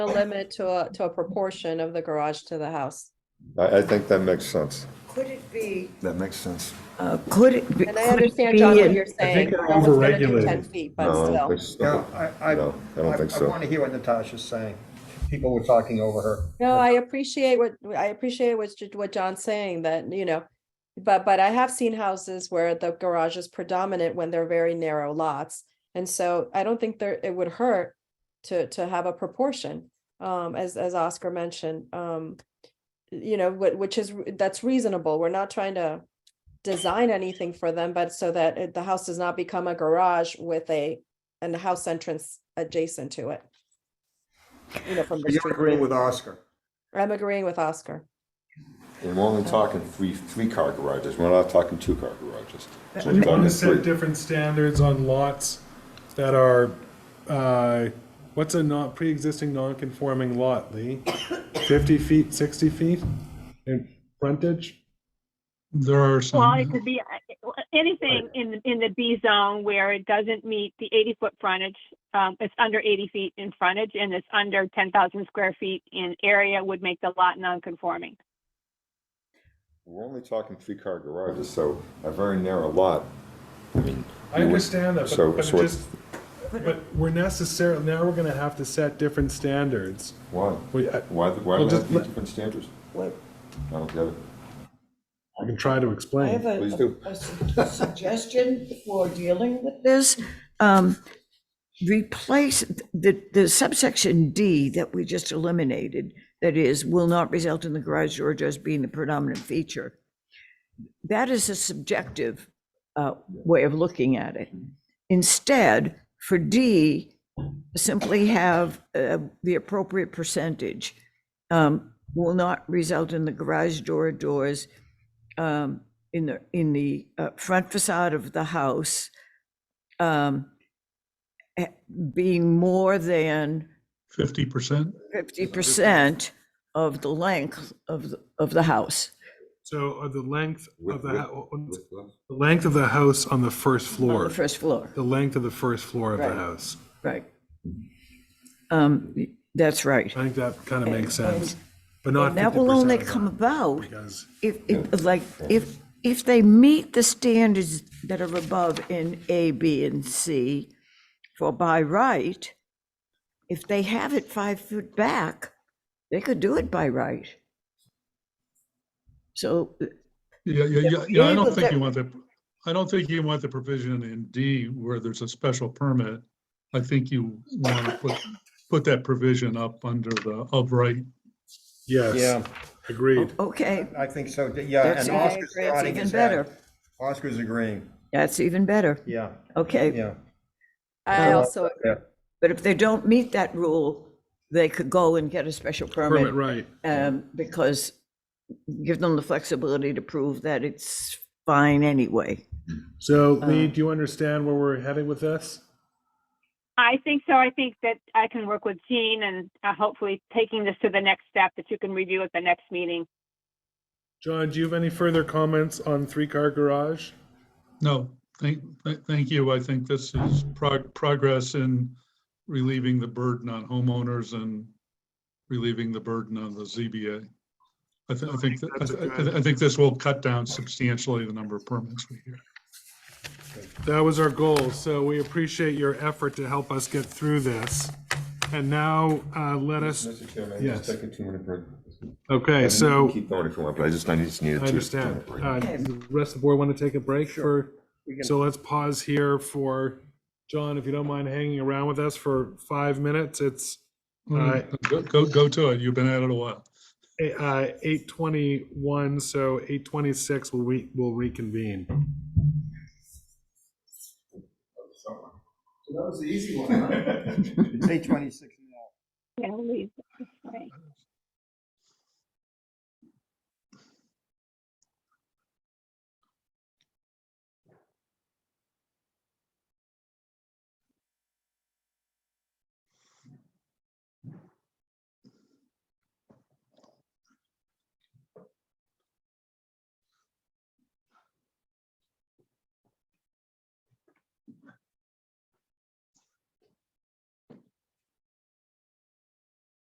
a limit to a, to a proportion of the garage to the house. I, I think that makes sense. Could it be, That makes sense. uh, could it be? And I could it understand, be John, what an- you're saying. they're No one's gonna do overregulated. Ten feet, but No, I don't still. think so. Yeah, I, I, No, I don't think I so. want to hear what Natasha's saying. People were talking over her. No, I appreciate what, I appreciate what, what John's saying that, you know, but, but I have seen houses where the garage is predominant when they're very narrow lots. And so I don't think there, it would hurt to, to have a proportion, um, as, as Oscar mentioned, um. You know, whi- which is, re- that's reasonable. We're not trying to design anything for them, but so that it- the house does not become a garage with a, and a house entrance adjacent to it. You know, from the You're street. agreeing with Oscar. I'm agreeing with Oscar. We're only talking three, three-car garages, we're not talking two-car garages. So we're Want talking to set three. different standards on lots that are, uh, what's a not, pre-existing non-conforming lot, Lee? Fifty feet, sixty feet in frontage? There are Well, it some, could be uh, anything in, in the B zone where it doesn't meet the eighty foot frontage. Um, it's under eighty feet in frontage and it's under ten thousand square feet in area would make the lot non-conforming. We're only talking three-car garages, so a very narrow lot. I mean, I understand that, So- but, but it so it's- just, but we're necessarily, now we're gonna have to set different standards. why? We, I, Why, why Well, would just have these let- different standards? What- I don't get it. I can try to I explain. have a- Please do. a, a su- suggestion for dealing with this. Um, replace the, the subsection D that we just eliminated, that is, will not result in the garage door as being the predominant feature. That is a subjective, uh, way of looking at it. Instead, for D, simply have, uh, the appropriate percentage. Um, will not result in the garage door or doors um, in the, in the uh, front facade of the house um, eh, being more than fifty percent. 50% of the length of, the- of the house. So uh, the length of With- the, with- hou- the length of the house on the first On the floor, first floor, the length of the first floor of the Right. house. right. Um, That's right. I think that kind of makes sense, but not And that will only 50% of come that, about Because if, if- like, if, if they meet the standards that are above in A, B, and C for by right, if they have it five foot back, they could do it by right. So, uh, Yeah, yeah, yeah, yeah, I don't vehicles think that- you want the, I don't think you want the provision in D where there's a special permit. I think you want to put, put that provision up under the upright. Yes, Oh. agreed. okay, I think so, yeah, that's and that's Oscar's nodding even his head. better. Oscar's agreeing, That's even better, yeah, okay. yeah. I also, But if they don't meet that rule, they could go and get a special Permit, permit right. um, because give them the flexibility to prove that it's fine anyway. So Lee, Um, do you understand where we're heading with this? I think so. I think that I can work with Jean and uh, hopefully taking this to the next step that you can review at the next meeting. John, do you have any further comments on three-car garage? No, thank, thank- thank you. I think this is prog- progress in relieving the burden on homeowners and relieving the burden on the ZBA. I thi- I think, that- I thi- I think this will cut down substantially the number of permits we hear. That was our goal, so we appreciate your effort to help us get through this. And now, uh, let us, Mr. Chairman, Yes. just take a two-minute break. okay, so, Keep going if you want, but I just, I just needed I to. understand. Uh, the rest of the board want to take a break for, so let's pause here for, John, if you don't mind hanging around with us for five minutes, it's Alright. Go, go, go to it. You've been at it a while. eh, uh, eight twenty-one, so eight twenty-six, we'll re, we'll reconvene. Eight twenty-six now. Yeah, I'll leave this way.